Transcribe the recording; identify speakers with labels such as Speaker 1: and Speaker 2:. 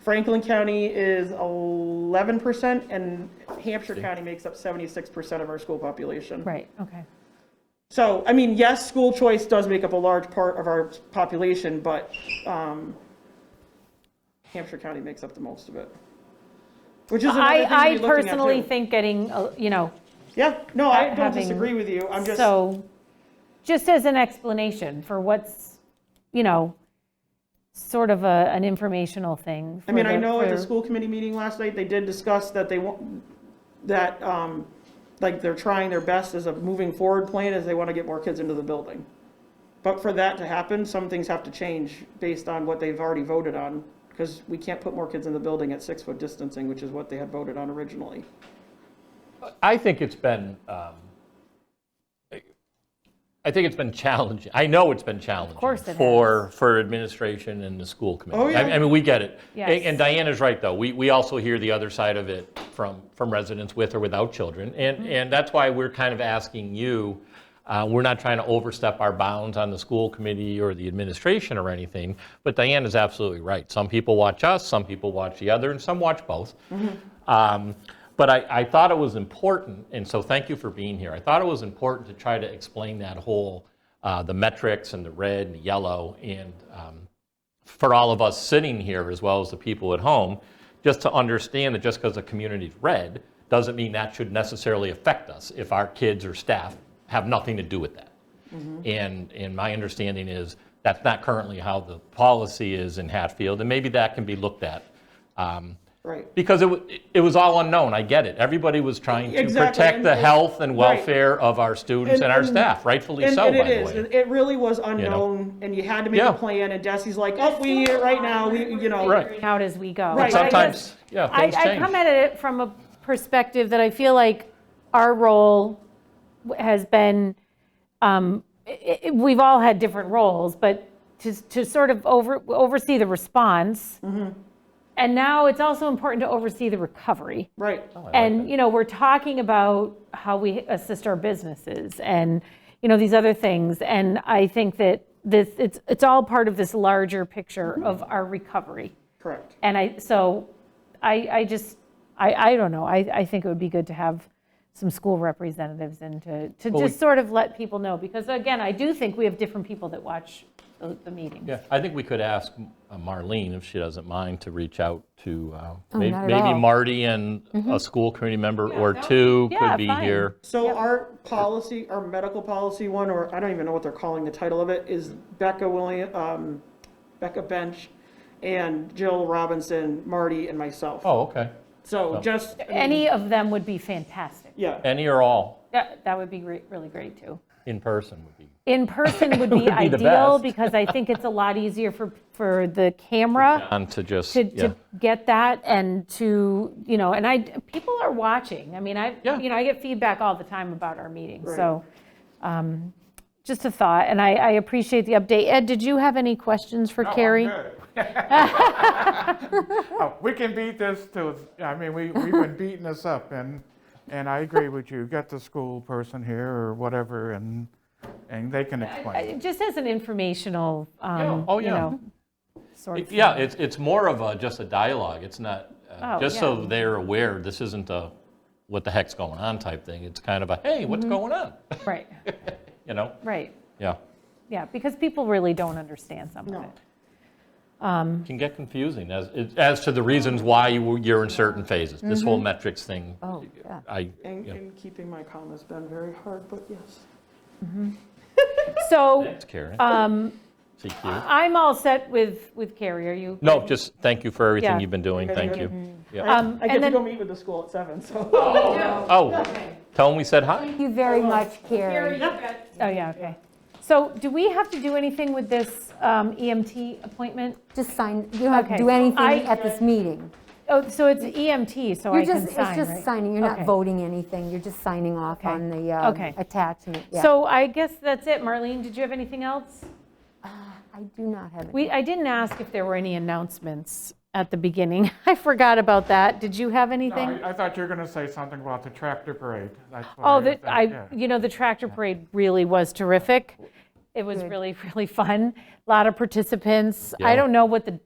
Speaker 1: Franklin County is eleven percent, and Hampshire County makes up seventy-six percent of our school population.
Speaker 2: Right, okay.
Speaker 1: So, I mean, yes, school choice does make up a large part of our population, but um, Hampshire County makes up the most of it. Which is another thing
Speaker 2: I,
Speaker 1: to
Speaker 2: I
Speaker 1: be looking at,
Speaker 2: personally
Speaker 1: too.
Speaker 2: think getting, uh, you know,
Speaker 1: Yeah, no, I don't
Speaker 2: having-
Speaker 1: disagree with you. I'm just,
Speaker 2: so, just as an explanation for what's, you know, sort of a, an informational thing.
Speaker 1: I mean,
Speaker 2: for
Speaker 1: I
Speaker 2: the-
Speaker 1: know at the
Speaker 2: for-
Speaker 1: school committee meeting last night, they did discuss that they want, that, um, like, they're trying their best as a moving forward plan as they want to get more kids into the building. But for that to happen, some things have to change based on what they've already voted on, because we can't put more kids in the building at six-foot distancing, which is what they had voted on originally.
Speaker 3: I think it's been, um, I think it's been challenging. I know it's been challenging.
Speaker 2: course it has.
Speaker 3: For, for administration and the school committee.
Speaker 1: Oh, yeah.
Speaker 3: I I mean, we get it.
Speaker 2: Yes.
Speaker 3: And- And Diana's right, though. We, we also hear the other side of it from, from residents with or without children. And, and that's why we're kind of asking you, uh, we're not trying to overstep our bounds on the school committee or the administration or anything, but Diana's absolutely right. Some people watch us, some people watch the other, and some watch both. Um, But I, I thought it was important, and so thank you for being here. I thought it was important to try to explain that whole, uh, the metrics and the red and the yellow, and um, for all of us sitting here, as well as the people at home, just to understand that just because the community's red, doesn't mean that should necessarily affect us if our kids or staff have nothing to do with that.
Speaker 1: Mm-hmm.
Speaker 3: And, and my understanding is that's not currently how the policy is in Hatfield, and maybe that can be looked at. um,
Speaker 1: Right.
Speaker 3: because it, wa- it was all unknown, I get it. Everybody was trying to
Speaker 1: Exactly,
Speaker 3: protect
Speaker 1: and-
Speaker 3: the
Speaker 1: and-
Speaker 3: health and
Speaker 1: right.
Speaker 3: welfare of our students and our
Speaker 1: And-
Speaker 3: staff, rightfully
Speaker 1: And
Speaker 3: so, by
Speaker 1: and
Speaker 3: the
Speaker 1: it is,
Speaker 3: way.
Speaker 1: it really was unknown, and you had to make
Speaker 3: Yeah.
Speaker 1: a plan, and Desi's like, oh, we, need it right now, we, you know.
Speaker 3: Right.
Speaker 2: figuring out as we go.
Speaker 1: Right.
Speaker 2: But I
Speaker 3: Sometimes,
Speaker 2: guess-
Speaker 3: yeah,
Speaker 2: I,
Speaker 3: things
Speaker 2: I
Speaker 3: change.
Speaker 2: come at it from a perspective that I feel like our role w- has been, um, i- i- we've all had different roles, but to, to sort of over, oversee the response. And now it's also important to oversee the recovery.
Speaker 1: Right,
Speaker 2: And, you know, we're talking about how we assist our businesses and, you know, these other things. And I think that this, it's, it's all part of this larger picture of our recovery.
Speaker 1: correct.
Speaker 2: And I, so I, I just, I, I don't know. I, I think it would be good to have some school representatives and to, to
Speaker 3: we-
Speaker 2: just sort of let people know. Because again, I do think we have different people that watch the, the meetings.
Speaker 3: Yeah, I think we could ask uh, Marlene, if she doesn't mind, to reach out to uh, may-
Speaker 4: Oh, not at
Speaker 3: maybe
Speaker 4: all. Mm-hmm.
Speaker 3: Marty and a school committee member or
Speaker 2: that-
Speaker 3: two
Speaker 2: yeah,
Speaker 3: could be
Speaker 2: fine.
Speaker 3: here.
Speaker 1: So our policy, our medical policy one, or I don't even know what they're calling the title of it, is Becca William, um, Becca Bench and Jill Robinson, Marty and myself.
Speaker 3: Oh, okay.
Speaker 1: So just,
Speaker 2: Any of them would be fantastic.
Speaker 1: yeah,
Speaker 3: Any or all
Speaker 2: Yeah, That would be re- really great too.
Speaker 3: in person would be.
Speaker 2: In person would be
Speaker 3: the
Speaker 2: ideal
Speaker 3: best.
Speaker 2: because I think it's a lot easier for, for the
Speaker 4: Uh,
Speaker 2: camera
Speaker 3: On to just,
Speaker 2: to,
Speaker 3: yeah.
Speaker 2: to get that and to, you know, and I, people are watching. I mean, I,
Speaker 3: Yeah.
Speaker 2: you know, I get feedback all the time about our meetings, so, um, just a thought, and I, I appreciate the update. Ed, did you have any questions for Carrie?
Speaker 5: No, Oh, I'm good. Oh, We can beat this to, I mean, we, we've been beating this up, and, and I agree with you. Get the school person here or whatever, and, and they can explain.
Speaker 2: Uh, Just as an informational, um,
Speaker 3: oh,
Speaker 2: you
Speaker 3: yeah.
Speaker 2: know, sort of.
Speaker 3: Yeah, it's, it's more of a, just a dialogue. It's not, uh,
Speaker 2: Oh,
Speaker 3: just so
Speaker 2: yeah.
Speaker 3: they're aware, this isn't a what the heck's going on type thing. It's kind of a, hey, what's
Speaker 4: Mm-hmm.
Speaker 3: going on?
Speaker 2: Right,
Speaker 3: You know?
Speaker 2: right,
Speaker 3: Yeah.
Speaker 2: yeah, because people really don't understand some of it.
Speaker 3: can get confusing as, as to the reasons why you were- you're in certain phases. This whole metrics thing,
Speaker 4: Mm-hmm. Oh, yeah.
Speaker 3: I,
Speaker 1: and,
Speaker 3: yeah.
Speaker 1: and keeping my calm has been very hard, but yes.
Speaker 2: So,
Speaker 3: Thanks, Karen. Um, CQ.
Speaker 2: I'm all set with, with Carrie, are you?
Speaker 3: No, just thank you for everything
Speaker 2: Yeah.
Speaker 3: you've been doing,
Speaker 1: Very
Speaker 3: thank
Speaker 1: good.
Speaker 3: you. Yeah.
Speaker 2: Um,
Speaker 1: I get
Speaker 2: and
Speaker 1: to
Speaker 2: then-
Speaker 1: go meet with the school at seven, so.
Speaker 3: Oh, tell them we said hi.
Speaker 4: Thank you very much, Carrie.
Speaker 2: Oh, yeah, okay. So do we have to do anything with this um, EMT appointment?
Speaker 4: Just sign, you don't have
Speaker 2: Okay.
Speaker 4: to do anything
Speaker 2: I-
Speaker 4: at this meeting.
Speaker 2: Oh, so it's EMT, so I
Speaker 4: You're
Speaker 2: can
Speaker 4: just, it's
Speaker 2: sign,
Speaker 4: just
Speaker 2: right?
Speaker 4: signing, you're not
Speaker 2: Okay.
Speaker 4: voting anything, you're just signing off
Speaker 2: Okay.
Speaker 4: on the um,
Speaker 2: Okay.
Speaker 4: attachment. yeah.
Speaker 2: So I guess that's it. Marlene, did you have anything else?
Speaker 4: I do not have it.
Speaker 2: We, I didn't ask if there were any announcements at the beginning. I forgot about that. Did you have
Speaker 5: No,
Speaker 2: anything?
Speaker 5: I I thought you were going to say something about the tractor parade. That's what
Speaker 2: Oh,
Speaker 5: was
Speaker 2: that,
Speaker 5: thinking,
Speaker 2: I,
Speaker 5: yeah.
Speaker 2: you know, the tractor parade really was terrific. It was really, really fun. A Lot of participants. I
Speaker 3: Yeah.
Speaker 2: don't know what the